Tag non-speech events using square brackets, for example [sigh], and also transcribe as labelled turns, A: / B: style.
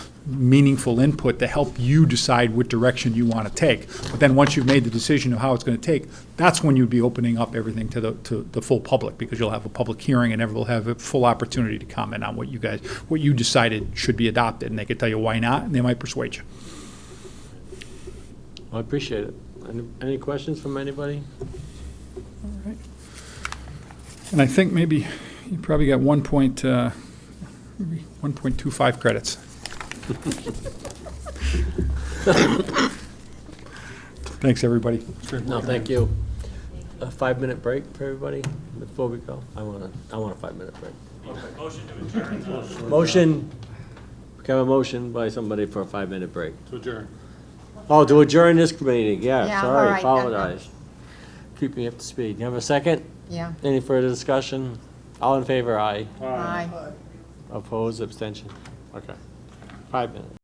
A: meaningful input to help you decide what direction you want to take. But then, once you've made the decision of how it's going to take, that's when you'd be opening up everything to the, to the full public, because you'll have a public hearing and everyone will have a full opportunity to comment on what you guys, what you decided should be adopted, and they could tell you why not, and they might persuade you.
B: I appreciate it. Any- Any questions from anybody?
A: And I think maybe you probably got one point, uh, maybe 1.25 credits. [laughs] Thanks, everybody.
B: No, thank you. A five-minute break for everybody before we go? I want a, I want a five-minute break. Motion, can I have a motion by somebody for a five-minute break?
C: To adjourn.
B: Oh, to adjourn this meeting, yeah,
D: Yeah,
B: sorry,
D: all right, okay.
B: apologize. Keep me up to speed. You have a second?
D: Yeah,
B: Any further discussion? All in favor, aye.
D: aye.
B: Opposed, abstention? Okay. Five minutes.